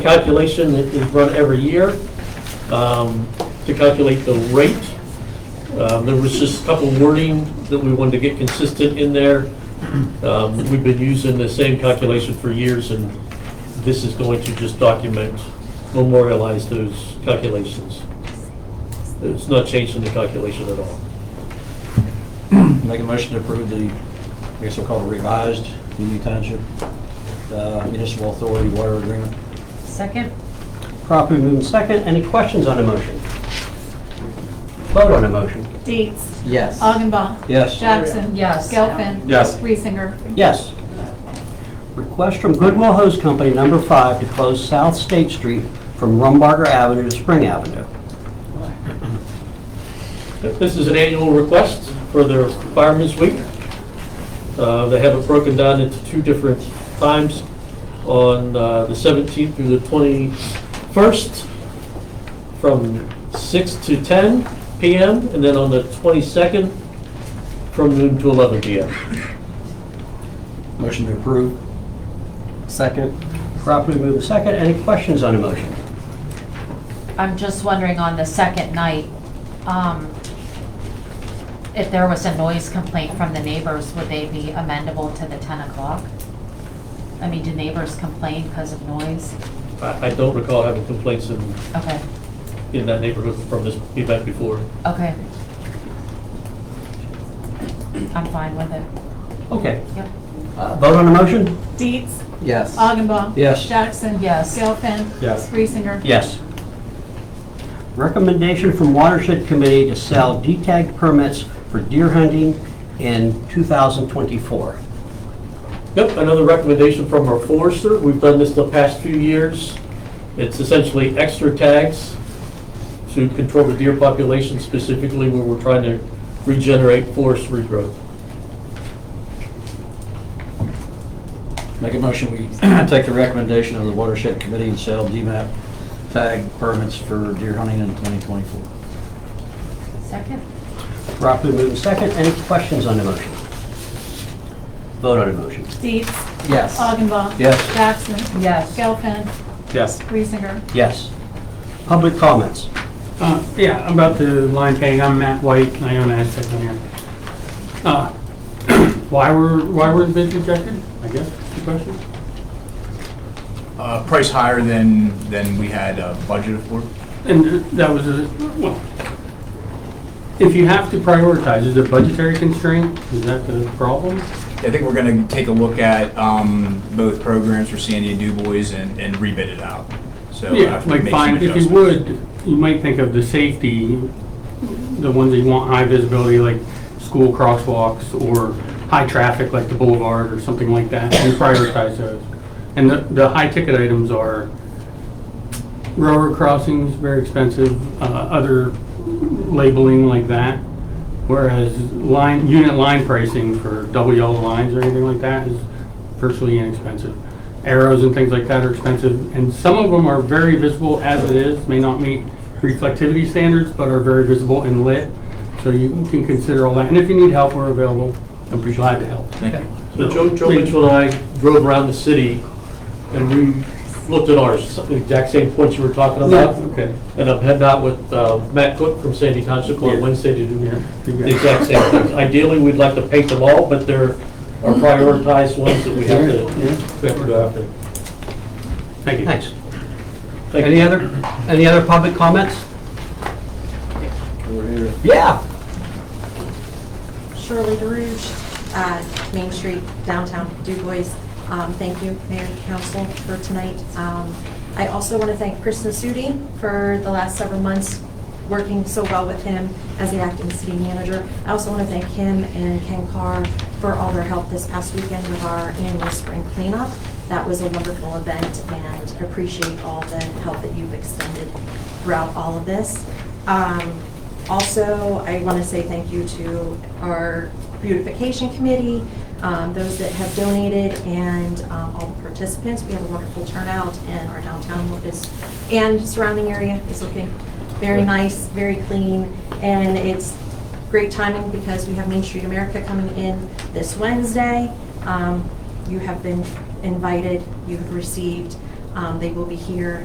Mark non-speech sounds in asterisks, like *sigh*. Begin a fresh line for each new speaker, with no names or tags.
calculation that is run every year um, to calculate the rate. Um, There was just a couple wording that we wanted to get consistent in there. Um, We've been using the same calculation for years, and this is going to just document, memorialize those calculations. It's not changing the calculation at all.
Make a motion to approve the, I guess we'll call it revised Union Township uh, Municipal Authority Water Agreement.
Second?
Properly moved in second. Any questions on the motion? Vote on the motion.
Dietz.
Yes.
Augenbaum.
Yes.
Jackson.
Yes.
Gelfen.
Yes.
Reesinger.
Yes. Request from Goodwill Hose Company, number five, to close South State Street from Rumbarger Avenue to Spring Avenue.
This is an annual request for their Fireman's Week. Uh, They have it broken down into two different times, on uh, the 17th through the 21st, from 6 to 10 PM, and then on the 22nd, from noon to 11 PM.
Motion to approve.
Second. Properly moved in second. Any questions on the motion?
I'm just wondering on the second night, um, if there was a noise complaint from the neighbors, would they be amendable to the 10 o'clock? I mean, do neighbors complain because of noise?
I I don't recall having complaints in
Okay,
in that neighborhood from this event before.
okay. I'm fine with it.
Okay.
Yep.
Uh, Vote on the motion?
Dietz.
Yes.
Augenbaum.
Yes.
Jackson.
Yes.
Gelfen.
Yes.
Reesinger.
Yes. Recommendation from Watershed Committee to sell D-tag permits for deer hunting in 2024.
Yep, another recommendation from our forester. We've done this the past few years. It's essentially extra tags to control the deer population specifically where we're trying to regenerate forest regrowth.
Make a motion, we *clears throat* take the recommendation of the Watershed Committee and sell DMAP tag permits for deer hunting in 2024.
Second?
Properly moved in second. Any questions on the motion? Vote on the motion.
Dietz.
Yes.
Augenbaum.
Yes.
Jackson.
Yes.
Gelfen.
Yes.
Reesinger.
Yes. Public comments.
Uh, Yeah, about the line painting, I'm Matt White, and I own Aztec on here. Uh, *clears throat* Why were, why were the bids rejected, I guess, is the question?
Uh, Price higher than, than we had uh, budgeted for.
And that was, a well, if you have to prioritize, is it budgetary constraint? Is that the problem?
I think we're going to take a look at um, both programs for Sandy and DuBois and and rebid it out. So we'll
Yeah,
have to
like
make some
fine, if you
adjustments.
would, you might think of the safety, the ones that you want high visibility, like school crosswalks or high traffic, like the boulevard or something like that, and prioritize those. And the, the high ticket items are railroad crossings, very expensive, uh, other labeling like that. Whereas line, unit line pricing for double yellow lines or anything like that is virtually inexpensive. Arrows and things like that are expensive, and some of them are very visible as it is, may not meet reflectivity standards, but are very visible and lit. So you can consider all that, and if you need help, we're available, I'd be glad to help.
Thank you.
So Joe, Joe Mitchell and I drove around the city and we looked at ours, the exact same points you were talking about.
Okay.
And I'm heading out with uh, Matt Cook from Sandy Township on
Yeah.
Wednesday to do
Yeah.
the exact same things. Ideally, we'd like to paint them all, but there are prioritized ones that we have to, we have to go after.
Thank you.
Thanks.
Thank you.
Any other, any other public comments?
Over here.
Yeah.
Shirley DeRuge, uh, Main Street, downtown Du Bois. Um, Thank you, Mayor and Council, for tonight. Um, I also want to thank Chris Nasuti for the last several months, working so well with him as the acting city manager. I also want to thank him and Ken Carr for all their help this past weekend with our annual spring cleanup. That was a wonderful event, and appreciate all the help that you've extended throughout all of this. Um, also, I want to say thank you to our beautification committee, um, those that have donated, and um, all the participants. We had a wonderful turnout, and our downtown is, and surrounding area is looking very nice, very clean, and it's great timing because we have Main Street America coming in this Wednesday. Um, You have been invited, you have received Um, They will be here